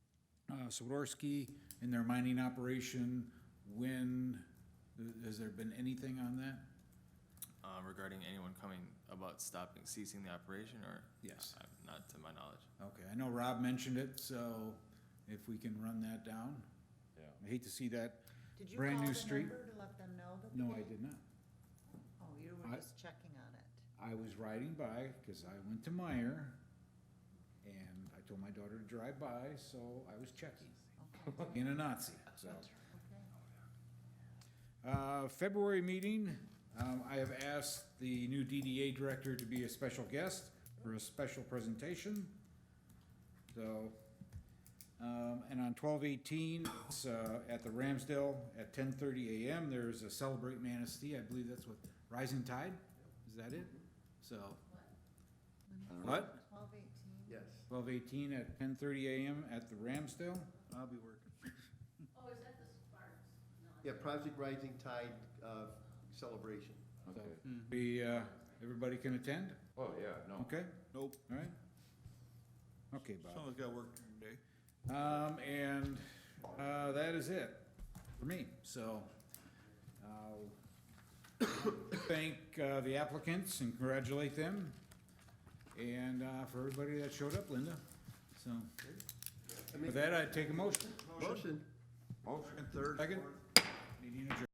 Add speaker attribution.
Speaker 1: Swiderski Uh, in their mining operation, when, has there been anything on that?
Speaker 2: uh, regarding anyone coming about stopping, ceasing the operation, or?
Speaker 1: Yes.
Speaker 2: I- I'm Not to my knowledge.
Speaker 1: Okay, I know Rob mentioned it, so if we can run that down,
Speaker 3: Yeah.
Speaker 1: I hate to see that.
Speaker 4: Did you call the
Speaker 1: Brand new
Speaker 4: number
Speaker 1: street.
Speaker 4: to let them know that?
Speaker 1: No,
Speaker 4: they-
Speaker 1: I did not.
Speaker 4: Oh, you
Speaker 1: I-
Speaker 4: were just checking on it.
Speaker 1: I was riding by, cause I went to Meyer, and I told my daughter to drive by, so I was checking,
Speaker 4: Okay,
Speaker 1: being a Nazi, so.
Speaker 4: okay.
Speaker 1: Uh, February meeting, um, I have asked the new DDA director to be a special guest for a special presentation. So, um, and on twelve eighteen, it's, uh, at the Ramsdale at ten thirty AM, there's a Celebrate Manistee, I believe that's what, Rising Tide? Is that it? So, what?
Speaker 4: Twelve eighteen?
Speaker 3: Yes.
Speaker 1: Twelve eighteen at ten thirty AM at the Ramsdale? I'll be working.
Speaker 5: Yeah, Project Rising Tide uh, celebration.
Speaker 3: Okay.
Speaker 1: Be, uh, everybody can attend?
Speaker 3: Oh, yeah, no.
Speaker 1: Okay?
Speaker 6: Nope.
Speaker 1: All right? Okay, Bob.
Speaker 6: Someone's got work during the day.
Speaker 1: Um, and, uh, that is it for me, so, uh, thank, uh, the applicants and congratulate them. And, uh, for everybody that showed up, Linda, so,
Speaker 5: I
Speaker 1: with
Speaker 5: make
Speaker 1: that, I take a motion.
Speaker 5: a motion.
Speaker 3: Motion.
Speaker 1: Second? Meeting adjourned.